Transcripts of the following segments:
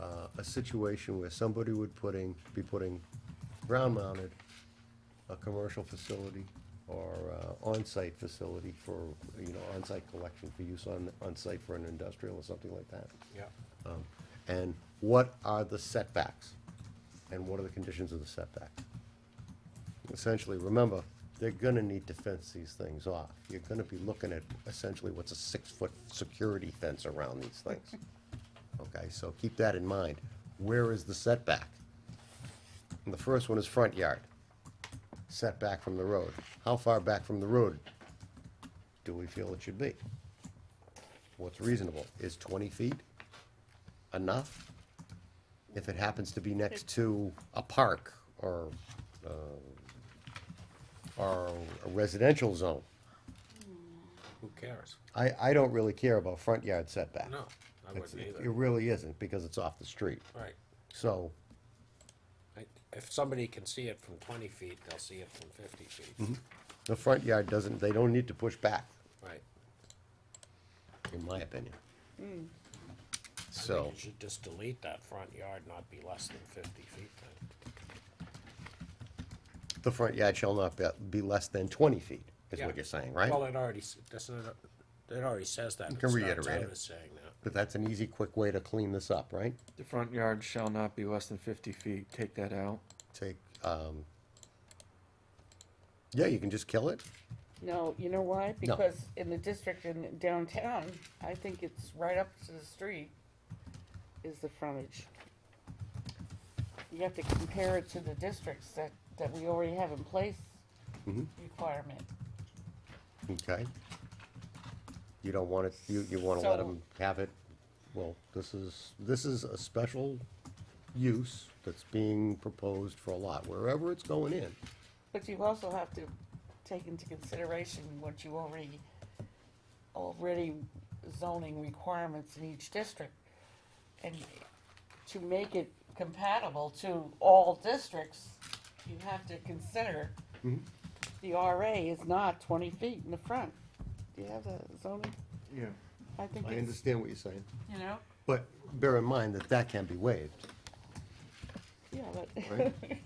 uh, a situation where somebody would putting, be putting ground-mounted, a commercial facility or uh, on-site facility for, you know, on-site collection for use on, on-site for an industrial or something like that. Yeah. Um, And what are the setbacks? And what are the conditions of the setback? Essentially, remember, they're gonna need to fence these things off. You're gonna be looking at essentially what's a six-foot security fence around these things. Okay, so keep that in mind. Where is the setback? And the first one is front yard, setback from the road. How far back from the road do we feel it should be? What's reasonable? Is twenty feet enough? If it happens to be next to a park or, uh, or a residential zone, Who cares? I, I don't really care about front yard setback. No, I It's- wouldn't It either. it really isn't, because it's off the street. Right. So, I- If somebody can see it from twenty feet, they'll see it from fifty Mm-hmm. feet. the front yard doesn't, they don't need to push back, Right. in my opinion. Hmm. I think So, You should just delete that front yard, not be less than fifty feet then. the front yard shall not be, be less than twenty feet, is Yeah. what you're saying, right? Well, it already, s- doesn't it, it already says that. You can starts out reiterate it. as saying that. But that's an easy, quick way to clean this up, right? The front yard shall not be less than fifty feet, take that out. Take, um, yeah, you can just kill it. No, you know why? No. Because in the district in downtown, I think it's right up to the street is the frontage. You have to compare it to the districts that, that we already have in place requirement. Okay. You don't want it, you, you wanna let So- them have it, well, this is, this is a special use that's being proposed for a lot, wherever it's going in. But you also have to take into consideration what you already, already zoning requirements in each district. And to make it compatible to all districts, you have to consider Mm-hmm. the RA is not twenty feet in the front. Do you have the zoning? Yeah. I think I it's, understand what you're saying, you know, but bear in mind that that can be waived, yeah, but, Right.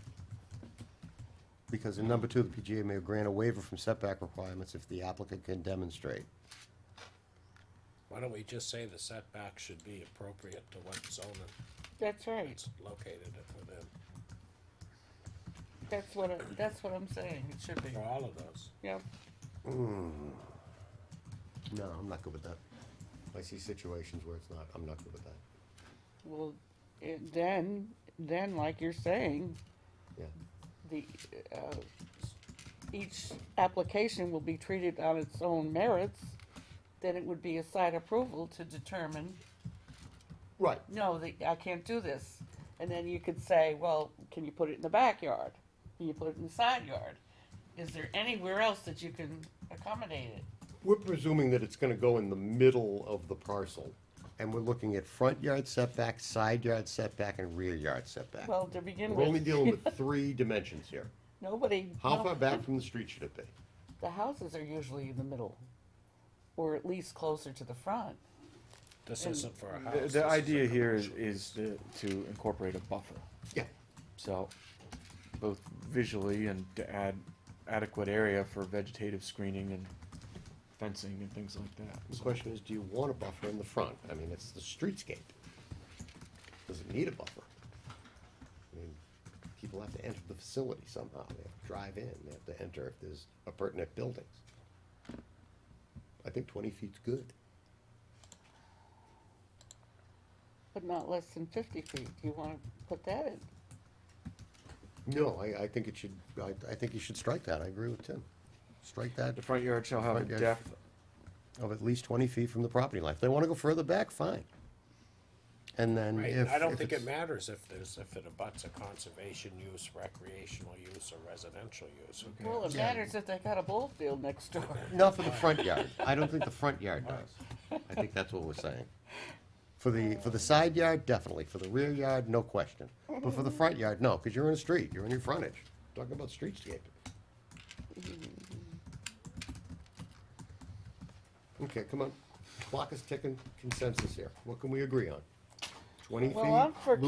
because in number two, the PGA may grant a waiver from setback requirements if the applicant can demonstrate. Why don't we just say the setback should be appropriate to what zone that's right. it's located within, That's what, I- that's what I'm saying, it should be, for all of those? yeah. No, I'm not good with that. I see situations where it's not, I'm not good with that, Well, it, then, then, like you're saying, yeah. the, uh, each application will be treated on its own merits, then it would be a site approval to determine, Right. no, the, I can't do this. And then you could say, well, can you put it in the backyard? Can you put it in the side yard? Is there anywhere else that you can accommodate it? We're presuming that it's gonna go in the middle of the parcel, and we're looking at front yard setback, side yard setback, and rear yard setback. Well, to begin We're only with, dealing with three dimensions here. nobody, How no- far back from the street should it be? the houses are usually in the middle, or at least closer to the front. This isn't for a house. The, this is the a idea here is, commercial. is to, to incorporate a buffer, Yeah. so, both visually and to add adequate area for vegetative screening and fencing and things like that. The question is, do you want a buffer in the front? I mean, it's the streetscape. Does it need a buffer? I mean, people have to enter the facility somehow. They have to drive in, they have to enter if there's appurtenant buildings. I think twenty feet's good. But not less than fifty feet, do you wanna put that in? No, I, I think it should, I, I think you should strike that, I agree with Tim. Strike that The front yard shall have a Front yard- depth of at least twenty feet from the property line. If they wanna go further back, fine. And then Right, if. I don't if think it it's- matters if there's, if it abuts a conservation use, recreational use, or residential use. Who cares? Well, it matters if they got a ball field next door. Not for the front yard. I don't think the front yard does. I think that's what we're saying. For the, for the side yard, definitely. For the rear yard, no question. But for the front yard, no, cause you're in a street, you're in your frontage. Talking about streetscape. Okay, come on. Clock is ticking. Consensus here. What can we agree on? twenty feet? Well, I'm for